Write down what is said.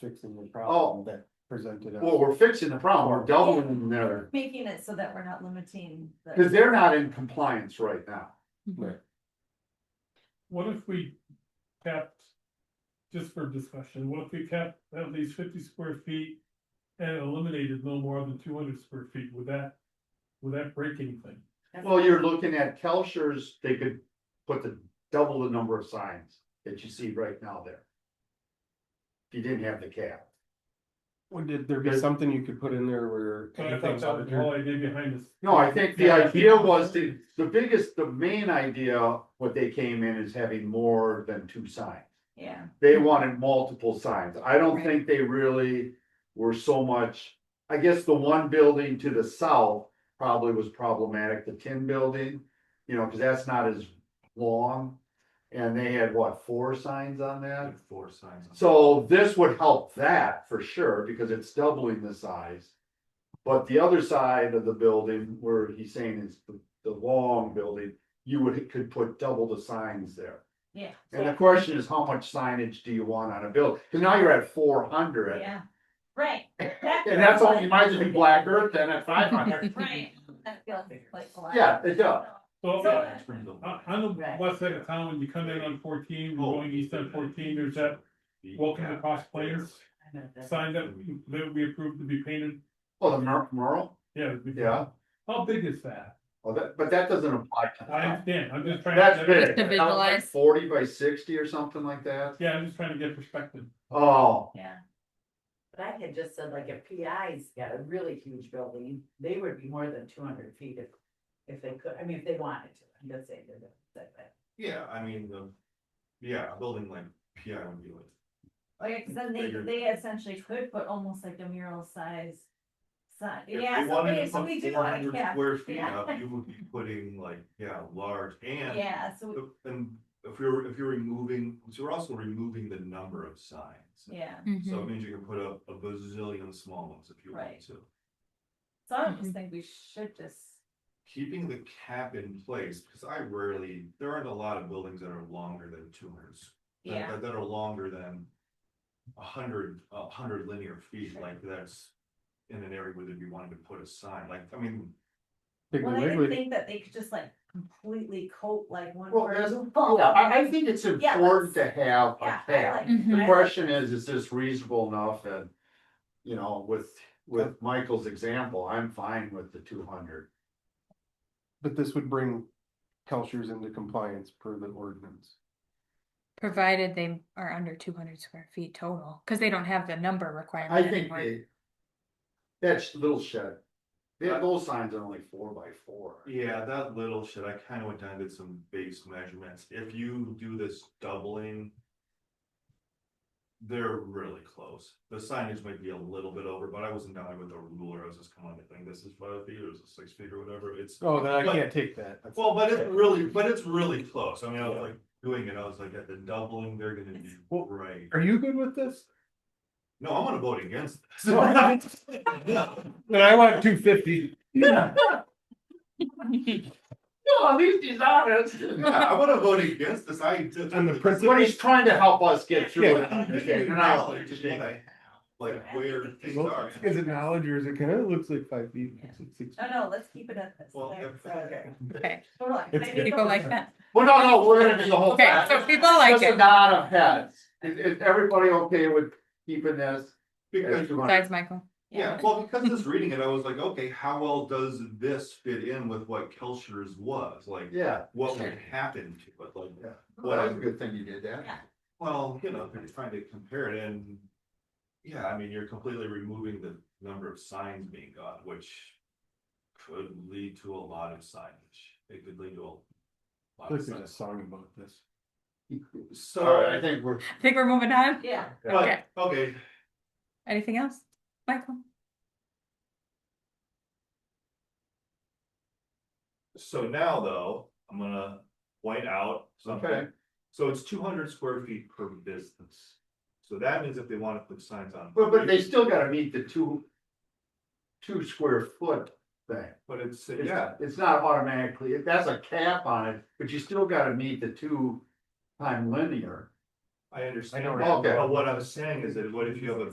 fixing Oh. the problem that presented. us. Well, we're fixing the problem, we're doubling their, making it so that we're not limiting. the- because they're not in compliance right now. What if we kept, just for discussion, what if we kept at least fifty square feet? And eliminated no more than two hundred square feet, would that, would that break anything? Well, you're looking at Kelchers, they could put the, double the number of signs that you see right now there. If you didn't have the cap. Would did there be something you could put in there where? But I thought anything's that up was the here? whole idea behind this. No, I think the idea was to, the biggest, the main idea, what they came in is having more than two signs. Yeah, They wanted multiple signs. I don't think they really were so much. I guess the one building to the south probably was problematic, the tin building, you know, cause that's not as long. And they had what, four signs on that? Four signs. So this would help that for sure, because it's doubling the size. But the other side of the building where he's saying is the, the long building, you would, could put double the signs there. yeah, And the question is, how much signage do you want on a bill? Cause now you're at four hundred. yeah, right. And that's all, you might as well be Black Earth then at five hundred. Right. That feels like a lot. Yeah, it does. So, So- uh, on the west side of town, when you come in on fourteen, Oh. we're going east on fourteen, there's that welcome to Cross Plains. Sign that, that we approved to be painted, Oh, the Mer- Merle? yeah. we- Yeah. How big is that? Oh, that, but that doesn't apply. to I that. understand, I'm just trying. to- That's big. Just to That was like visualize. Forty by sixty or something like that. Yeah, I'm just trying to get perspective. Oh, Yeah, But I had just said like if PI's got a really huge building, they would be more than two hundred feet if, if they could, I mean, if they wanted to, I'm just saying that, that, that. Yeah, I mean, the, yeah, a building like PI would be like, like, 'cause then they, Bigger. they essentially could put almost like a mural size. Sign, if yeah, you so wanted we, to so we put do four want to hundred cap, square feet yeah. up, you would be putting like, yeah, large and. yeah, so, we- And if you're, if you're removing, so you're also removing the number of signs. yeah, Mm-hmm. So it Mm-hmm. means you can put up a bazillion small ones if you want Right. to. so I just think we should just, Keeping the cap in place, because I rarely, there aren't a lot of buildings that are longer than two hundred that- yeah, That that are longer than. A hundred, a hundred linear feet, like that's. In an area where they'd be wanting to put a sign, like, I mean, Piggly well, I didn't Wiggly. think that they could just like completely coat like one well, that's, person. yeah, I, I think it's Yeah, important to have a Yeah, I cap. like. Mhm. I The like- question is, is this reasonable enough and, you know, with, with Michael's example, I'm fine with the two hundred. But this would bring Kelchers into compliance per the ordinance. Provided they are under two hundred square feet total, cause they don't have the number requirement I think anymore. they. That's little shed. Yeah, those signs are only four by four. yeah, that little shit, I kind of went down and did some base measurements, if you do this doubling. They're really close, the signage might be a little bit over, but I wasn't down there with a ruler, I was just kind of like, this is five feet, or this is six feet, or whatever, it's. Oh, then I But- can't take that. That's- Well, but it's really, but it's really close, I mean, I was like doing it, I was like, at the doubling, they're gonna be Well- right. Are you good with this? No, I'm gonna vote against this. No. Then I want two fifty. No, at least he's honest. Yeah, I wanna vote against this, I. just- On the That's what he's trying to help us get through. Yeah. it. Understand, and I Knowledge, understand. what I have, Like where things Well, are. Is it knowledge or is it kind of looks like five feet? Yeah. six- six- No, no, let's keep it at this. Well, There. if- Okay. Okay, Totally. It's- Maybe people like that. Well, no, no, we're gonna do the whole. Okay, package. so people like Just a it, nod of heads. Is, is everybody okay with keeping this? Because, besides Michael. yeah, well, because just reading it, I was like, okay, how well does this fit in with what Kelchers was, like, Yeah, what Sure. would happen to it, like. Yeah. well, What that's I a good thing you did that. Yeah. Well, you know, they're trying to compare it and. Yeah, I mean, you're completely removing the number of signs being got, which. Could lead to a lot of signage. It could lead to a. Lot of Listen to a signage. song about this. All right, I So, think we're. I think we're moving on. Yeah, but, okay, Anything else? Michael? so now though, I'm gonna point out something. Okay. So it's two hundred square feet per business. So that means if they wanna put signs on. But, but they still gotta meet the two. Two square foot thing. But it's, It's- yeah, It's not automatically, that's a cap on it, but you still gotta meet the two time linear. I understand. Okay. But what I'm saying is that what if you have a